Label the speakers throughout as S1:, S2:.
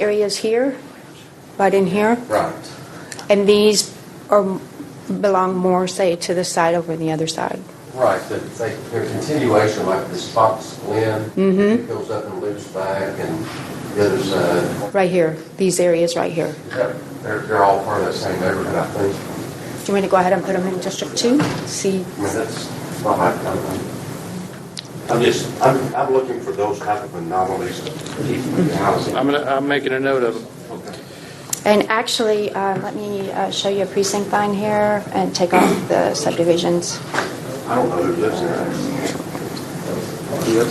S1: areas here, right in here,
S2: Right.
S1: and these are, belong more, say, to the side over the other side.
S2: Right, but it's like they're continuation, like this Fox Glen. It goes up and loops back and the other side.
S1: Right here, these areas right here.
S2: Is that- They're, they're all part of that same neighborhood, I think.
S1: Do you want me to go ahead and put them in District 2? See,
S2: I mean, that's not my, I'm, I'm just, I'm, I'm looking for those type of anomalies of people in housing.
S3: I'm gonna, I'm making a note of it.
S2: Okay.
S1: and actually, uh, let me uh, show you a precinct line here and take off the subdivisions.
S2: I don't know who lives there.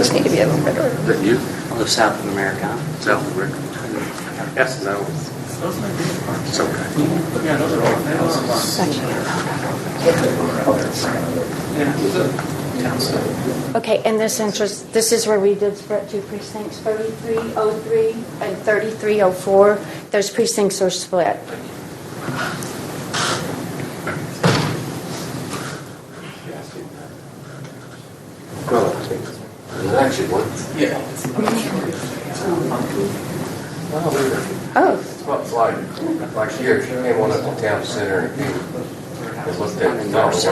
S1: Just need to be a little bit.
S2: Is that you?
S4: I live south of America, south of Rick.
S2: Yes, no. It's okay.
S1: Okay, and this interest, this is where we did split two precincts, 3303 and 3304. Those precincts are split.
S2: Well, I think, there's actually one. Yeah. Well, there-
S1: Oh,
S2: It's not like, like here, if you came on up to town center and you and looked at, no, I don't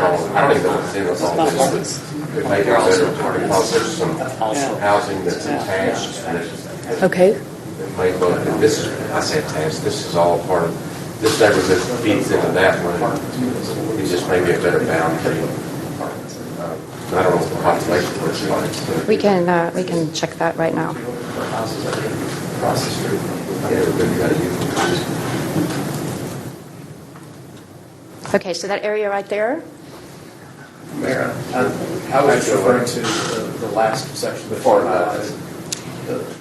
S2: even know what's in with all this. It may be better because there's some housing that's attached and it-
S1: okay.
S2: it may look, and this is, I say attached, this is all part of, this neighborhood feeds into that one. It's just maybe a better boundary. Uh, I don't know what the population looks like. but
S1: We can, uh, we can check that right now.
S2: Everybody got to use it.
S1: Okay, so that area right there?
S5: Mayor, I I was referring to the the last section. Before that.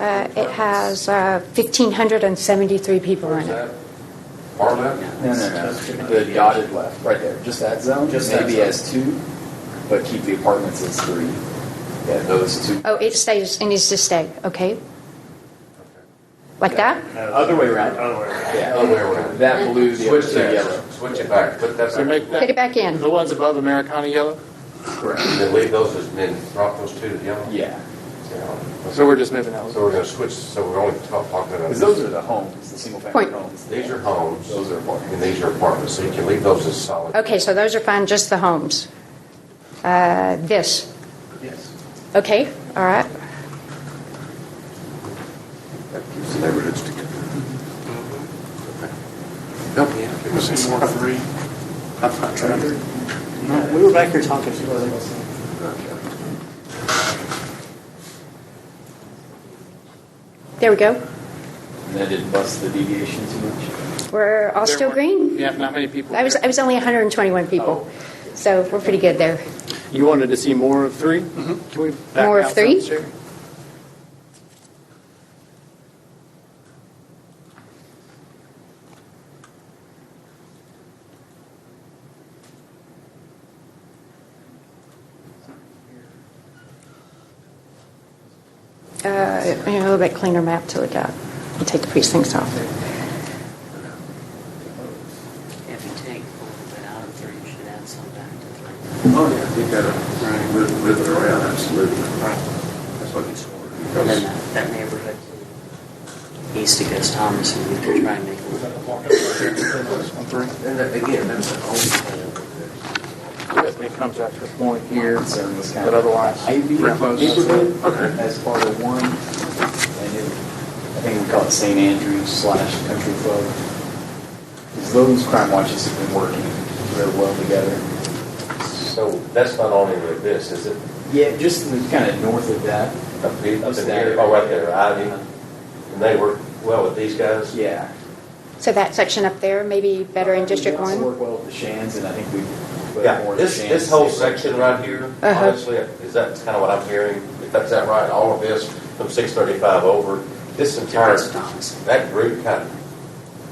S1: Uh, It has uh, 1,573 people in it.
S2: Part of that?
S5: No, no, no, the dotted left, right there, just that zone,
S4: Just that
S5: maybe
S4: zone.
S5: as two, but keep the apartments as three. Yeah, those two.
S1: Oh, it stays, it needs to stay, okay? Like that?
S5: Other way around. Other way around. Yeah.
S2: Other way around.
S5: That blue, the
S2: Switch
S5: other two yellow.
S2: that, switch it back, put that
S3: So
S2: back.
S3: make
S1: Put it
S3: that,
S1: back in.
S3: the ones above Americana yellow?
S5: Correct.
S2: And then leave those as, then drop those two to yellow?
S5: Yeah,
S2: Yeah.
S3: So we're just moving those.
S2: So we're gonna switch, so we're only talk- talking about.
S5: because those are the homes, the single family
S1: Point.
S5: homes.
S2: These are homes.
S5: Those are apartments.
S2: And these are apartments, so you can leave those as solid.
S1: Okay, so those are fine, just the homes. Uh, This? Yes. Okay, all right.
S2: That keeps the neighborhoods together. Mm-hmm. Help me out. Give us some more. I'm not trying to.
S4: No, we were back here talking.
S1: There we go.
S5: And that didn't bust the deviation too much.
S1: We're all still green.
S3: Yeah, not many people.
S1: I was, I was only 121 people, so we're pretty good there.
S3: You wanted to see more of three? Can we back
S1: Mm-hmm. More of
S3: out
S1: three?
S3: some, Sherry?
S1: Uh, you know, A little bit cleaner map to look at. We'll take the precincts off.
S4: If you take a little bit out of three, you should add some back to three.
S6: Oh, yeah, you gotta move, move it around, absolutely. That's what it's for.
S4: And then that- that neighborhood east of Gus Thomas, and you could try and make a little
S2: And that, again, that's an old plan.
S3: It comes out to a point here,
S5: So this kind
S3: but
S5: of
S3: otherwise.
S5: Ivy
S3: we're close.
S5: neighborhood as part of one, and it, I think we call it St. Andrews slash Country Club. 'Cause Those crime watches have been working very well together.
S2: So that's not on any of this, is it?
S5: Yeah, just kind of north of that.
S2: Up here, up in here, oh, right there, Ivy, and they work well with these guys?
S5: Yeah.
S1: So that section up there, maybe better in District
S5: We also
S1: 1?
S5: work well with the Shands, and I think we.
S2: Yeah, this, this whole section right here,
S1: Uh-huh.
S2: honestly, is that kind of what I'm hearing? If that's that right, all of this from six thirty-five over, this entire,
S4: Gus Thomas.
S2: that group kind of,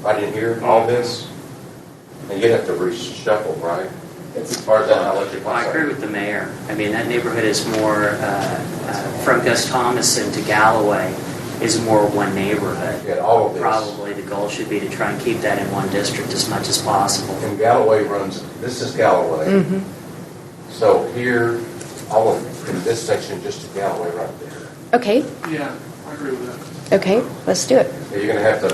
S2: right in here, all this, and you'd have to reshuffle, right? As far as that electric.
S4: Well, I agree with the mayor. I mean, that neighborhood is more, uh, uh, from Gus Thomas and to Galloway is more one neighborhood.
S2: Yeah, all of this.
S4: Probably the goal should be to try and keep that in one district as much as possible.
S2: And Galloway runs, this is
S4: Mm.
S2: Galloway.
S1: Mm-hmm.
S2: So here, all of, in this section, just to Galloway right there.
S1: Okay,
S7: Yeah, I agree with that.
S1: okay, let's do it.
S2: You're gonna have to